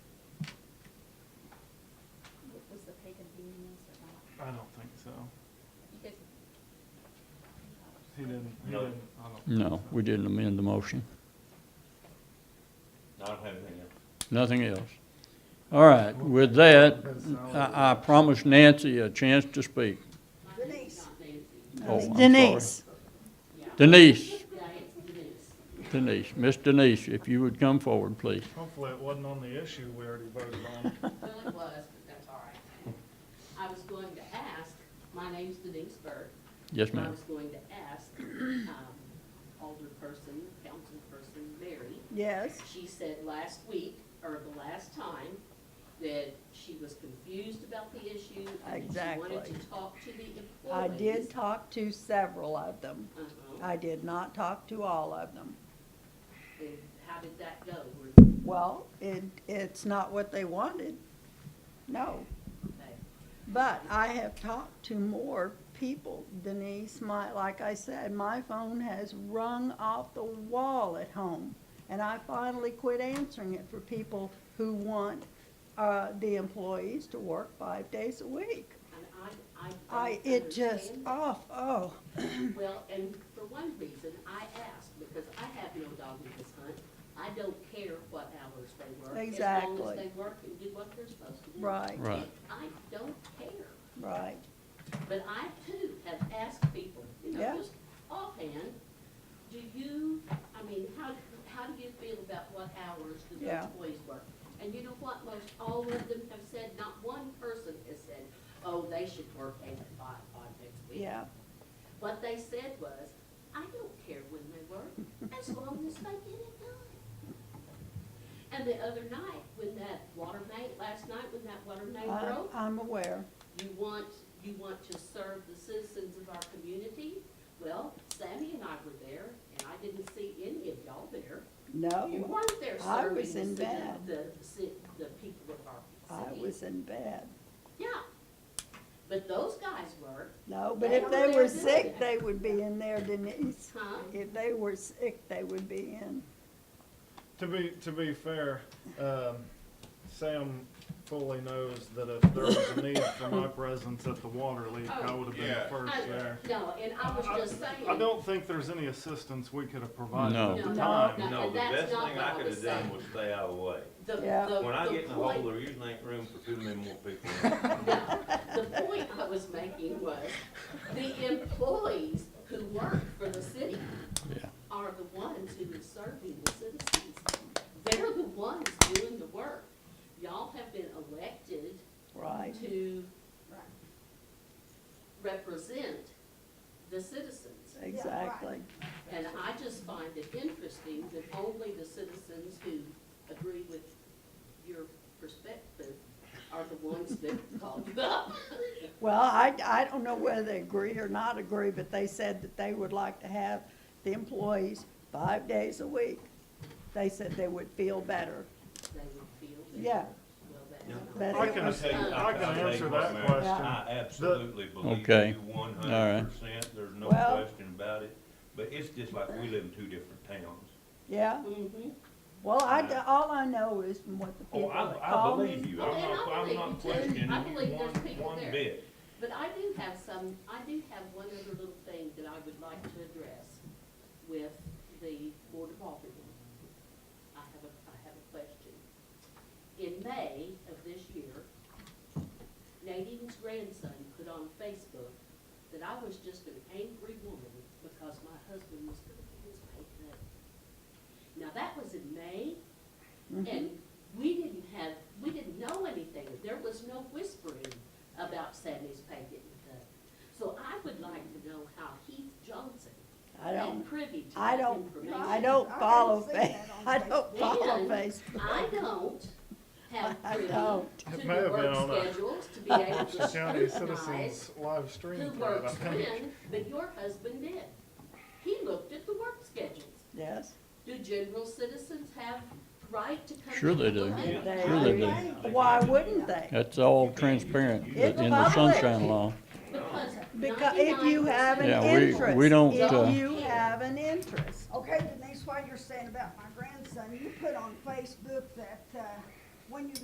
No. didn't, I don't. think No, so. we didn't amend the motion. I don't have anything else. Nothing else. All right, with that, I, I promised Nancy a chance to speak. Denise. Oh, I'm sorry. Denise. Denise. Denise, Miss Denise, if you would come forward, please. Hopefully it wasn't on the issue we already voted on. Well, it was, but that's all right. I was going to ask, my name's Denise Burke. Yes, I ma'am. was going to ask, um, older person, council person, Mary. Yes. She said last week, or the last time, that she was confused about the issue. and that She wanted Exactly. to talk to the I employees. did talk to several of them. Uh-huh. I did not talk to all of them. And how did that go? Were- Well, it, it's not what they wanted. No. they- But I have talked to more people, Denise, my, like I said, my phone has rung off the wall at home. And I finally quit answering it for people who want, uh, the employees to work five days a week. And I, I. I, don't it just, understand that. off, oh, Well, and for one reason, I asked, because I have no dog in this hunt. I don't care what hours they work. As long Exactly. as they work and do what they're supposed to do. right, Right. And I don't care, right. but I too have asked people, you Yeah. know, just offhand, do you, I mean, how, how do you feel about what hours do the Yeah. employees work? And you know what, most all of them have said, not one person has said, oh, they should work eight to five on next week. Yeah, What they said was, I don't care when they work, as long as they get it done. And the other night, when that water main, last night when that water main I, broke, I'm aware. you want, you want to serve the citizens of our community? Well, Sammy and I were there, and I didn't see any of y'all there. You No, weren't there Oh, I serving the, was in citi- bed. the, ci- the people of our I city. was in bed. Yeah, but those guys were, No, but They if were they there were doing sick, it. they would be in there, Denise. huh? If they were sick, they would be in. To be, to be fair, um, Sam fully knows that if there was a need for my presence at the water leak, I would have been the Yeah. Oh. I- first there. No, and I was just saying. I don't think there's any assistance we could have provided No. at No, the no, time. no. No, the that's best not thing what I I could was have done saying. was stay out of the way. The, Yeah. the, When I the get in the hole, point, there usually ain't room for too many more people. in it. no, the point I was making was the employees who work for the city Yeah. are the ones who are serving the citizens. They're the ones doing the work. Y'all have been elected Right, to represent the citizens. exactly. And I just find it interesting that only the citizens who agree with your perspective are the ones that called you up. Well, I, I don't know whether they agree or not agree, but they said that they would like to have the employees five days a week. They said they would feel better. They would feel that. Yeah. Well, Yeah. that's But not. I it can, I was- tell you- I can tell you answer what, that Mary, question. I absolutely believe Okay. you one All hundred right. percent, there's no Well- question about it, but it's just like we live in two different towns. Yeah, Mhm. well, I, d- all I know is from what the Oh, people I, that I call me. believe you, Well, I'm and not, I I'm believe not you too. I questioning you believe there's one, people one there. bit. But I do have some, I do have one other little thing that I would like to address with the Board of Aldermen. I have a, I have a question. In May of this year, Nadine's grandson put on Facebook that I was just an angry woman because my husband was gonna get his pay cut. Now, that was in May, and we didn't have, we didn't know anything. There was no whispering about Sammy's pay getting cut. So I would like to know how Heath Johnson I don't, been privy to I that don't, information. I don't follow Fa, I don't follow And I Facebook. don't have I privy to don't. It the may have been on a- work schedules to be able to Dutchess County scrutinize Citizens live who stream thread, I works think. when, but your husband did. He looked at the work schedules. Yes, Do general citizens have right to come? Sure to they the do. meeting? they Sure they do. do. Why wouldn't they? That's all transparent in It's the public. sunshine law. Because Because if you have an Yeah, we- interest, we don't, uh, if you have an interest, Okay, Denise, while you're saying about my grandson, you put on Facebook that, uh, when you